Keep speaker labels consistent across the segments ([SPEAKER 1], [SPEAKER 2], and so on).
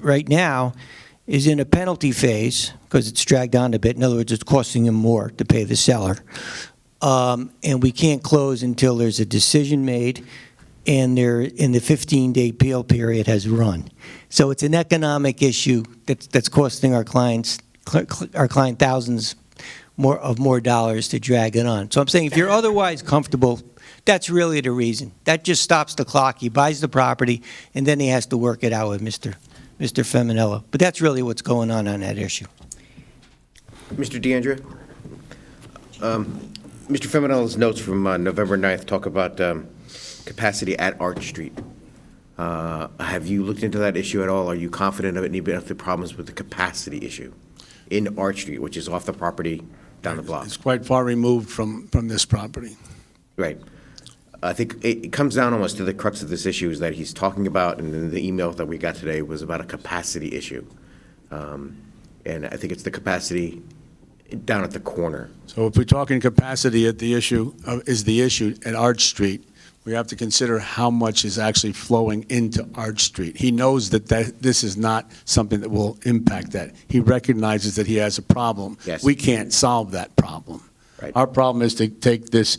[SPEAKER 1] right now is in a penalty phase because it's dragged on a bit. In other words, it's costing him more to pay the seller. Um, And we can't close until there's a decision made and there, and the 15-day appeal period has run. So it's an economic issue that's, that's costing our clients, cl- cl- our client thousands more, of more dollars to drag it on. So I'm saying if you're otherwise comfortable, that's really the reason. That just stops the clock. He buys the property, and then he has to work it out with Mr. Mr. Feminella. But that's really what's going on on that issue.
[SPEAKER 2] Mr. DeAndrea? Um, Mr. Feminile's notes from uh, November 9th talk about um, capacity at Arch Street. Uh, Have you looked into that issue at all? Are you confident of it, and you've been up to problems with the capacity issue in Arch Street, which is off the property down the block?
[SPEAKER 3] It's quite far removed from, from this property.
[SPEAKER 2] Right. I think it it comes down almost to the crux of this issue is that he's talking about, and then the email that we got today was about a capacity issue. Um, And I think it's the capacity down at the corner.
[SPEAKER 3] So if we're talking capacity at the issue, uh, is the issue at Arch Street, we have to consider how much is actually flowing into Arch Street. He knows that that, this is not something that will impact that. He recognizes that he has a problem.
[SPEAKER 2] Yes.
[SPEAKER 3] We can't solve that problem.
[SPEAKER 2] Right.
[SPEAKER 3] Our problem is to take this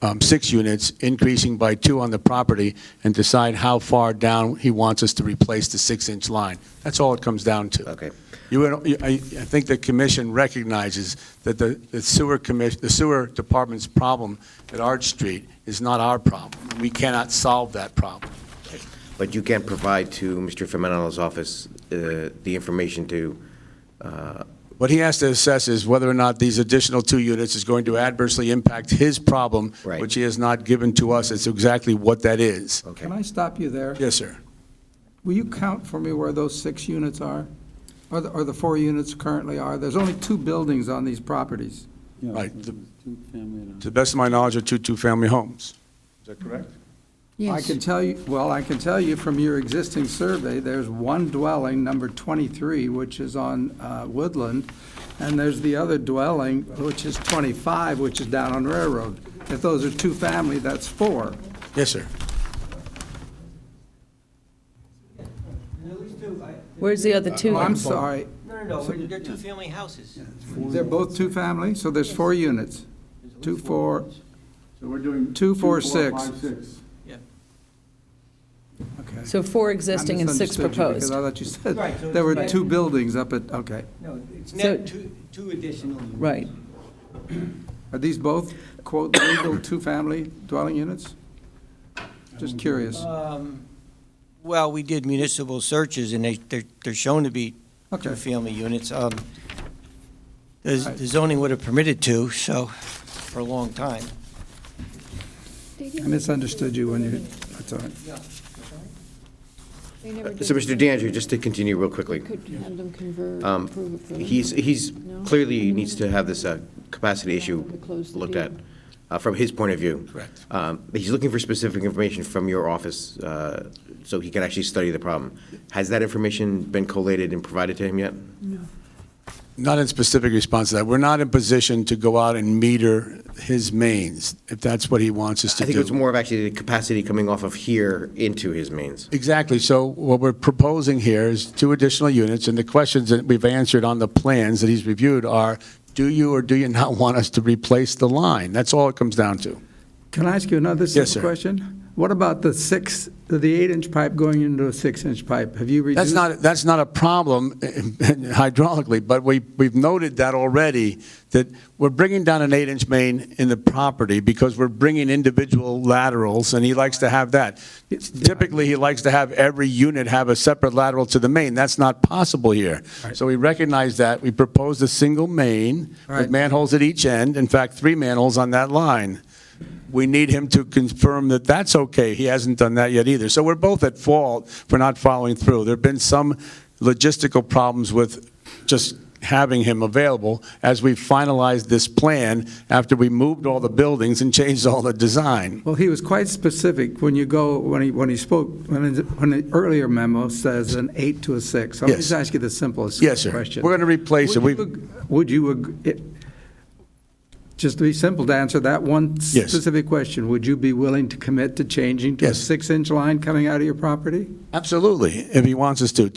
[SPEAKER 3] um, six units, increasing by two on the property, and decide how far down he wants us to replace the six-inch line. That's all it comes down to.
[SPEAKER 2] Okay.
[SPEAKER 3] You, would- you- I I think the commission recognizes that the the sewer commission, the sewer department's problem at Arch Street is not our problem. We cannot solve that problem.
[SPEAKER 2] But you can provide to Mr. Feminile's office uh, the information to, uh,
[SPEAKER 3] What he has to assess is whether or not these additional two units is going to adversely impact his problem,
[SPEAKER 2] Right.
[SPEAKER 3] which he has not given to us. It's exactly what that is.
[SPEAKER 2] okay.
[SPEAKER 4] Can I stop you there?
[SPEAKER 3] Yes, sir.
[SPEAKER 4] Will you count for me where those six units are? Or the, or the four units currently are? There's only two buildings on these properties.
[SPEAKER 3] Right.
[SPEAKER 5] Yeah, two-family and a-
[SPEAKER 3] To the best of my knowledge, are two two-family homes. Is that correct?
[SPEAKER 4] I can tell you, well, I can tell you from your existing survey, there's one dwelling, number 23, which is on uh, Woodland, and there's the other dwelling, which is 25, which is down on Railroad. If those are two-family, that's four.
[SPEAKER 3] Yes, sir.
[SPEAKER 6] Where's the other two?
[SPEAKER 4] Oh, I'm sorry,
[SPEAKER 1] No, no, no, they're two-family houses.
[SPEAKER 4] they're both two-family, so there's four units. Two, four,
[SPEAKER 5] So we're doing.
[SPEAKER 4] Two, four,
[SPEAKER 5] five,
[SPEAKER 4] six.
[SPEAKER 5] six.
[SPEAKER 4] okay.
[SPEAKER 6] So four
[SPEAKER 4] I
[SPEAKER 6] existing and six
[SPEAKER 4] misunderstood you Because
[SPEAKER 6] proposed.
[SPEAKER 4] I thought you
[SPEAKER 1] Right, so
[SPEAKER 4] said there were
[SPEAKER 6] it's-
[SPEAKER 4] two buildings up at, okay.
[SPEAKER 1] No, it's
[SPEAKER 6] So-
[SPEAKER 1] not two, two additional units.
[SPEAKER 6] Right.
[SPEAKER 4] Are these both, quote, legal two-family dwelling units? Just curious.
[SPEAKER 1] Um, Well, we did municipal searches, and they, they're, they're shown to be
[SPEAKER 4] Okay,
[SPEAKER 1] two-family units. Um, The
[SPEAKER 4] All right.
[SPEAKER 1] the zoning would have permitted two, so, for a long time.
[SPEAKER 4] I misunderstood you when you, that's all right.
[SPEAKER 7] They never did.
[SPEAKER 2] Uh, So, Mr. DeAndrea, just to continue real quickly,
[SPEAKER 7] Could have them convert,
[SPEAKER 2] um,
[SPEAKER 7] approve of them.
[SPEAKER 2] he's, he's
[SPEAKER 7] No?
[SPEAKER 2] clearly needs to have this uh, capacity issue
[SPEAKER 7] To close the
[SPEAKER 2] looked
[SPEAKER 7] deal.
[SPEAKER 2] at uh, from his point of view.
[SPEAKER 3] Correct.
[SPEAKER 2] Um, He's looking for specific information from your office uh, so he can actually study the problem. Has that information been collated and provided to him yet?
[SPEAKER 3] Not in specific response to that. We're not in position to go out and meter his mains, if that's what he wants us to do.
[SPEAKER 2] I think it's more of actually the capacity coming off of here into his mains.
[SPEAKER 3] Exactly. So what we're proposing here is two additional units, and the questions that we've answered on the plans that he's reviewed are, do you or do you not want us to replace the line? That's all it comes down to.
[SPEAKER 4] Can I ask you another
[SPEAKER 3] sir.
[SPEAKER 4] simple question? What about the six, the eight-inch pipe going into a six-inch pipe? Have you
[SPEAKER 3] That's
[SPEAKER 4] reduced?
[SPEAKER 3] not, that's not a problem hydraulically, but we, we've noted that already, that we're bringing down an eight-inch main in the property because we're bringing individual laterals, and he likes to have that. Typically, he likes to have every unit have a separate lateral to the main. That's not possible here. So we recognize that. We proposed a single main with
[SPEAKER 4] Right.
[SPEAKER 3] manholes at each end, in fact, three manholes on that line. We need him to confirm that that's okay. He hasn't done that yet either. So we're both at fault for not following through. There've been some logistical problems with just having him available as we finalized this plan after we moved all the buildings and changed all the design.
[SPEAKER 4] Well, he was quite specific when you go, when he, when he spoke, when, it- when the earlier memo says an eight to a six. I'm
[SPEAKER 3] Yes.
[SPEAKER 4] just asking the simplest
[SPEAKER 3] Yes, sir.
[SPEAKER 4] question.
[SPEAKER 3] We're going to replace it.
[SPEAKER 4] Would
[SPEAKER 3] We've-
[SPEAKER 4] you ag- Would you, ag- it- just to be simple, to answer that one
[SPEAKER 3] Yes.
[SPEAKER 4] specific question, would you be willing to commit to changing to a
[SPEAKER 3] Yes.
[SPEAKER 4] six-inch line coming out of your property?
[SPEAKER 3] Absolutely, if he wants us to.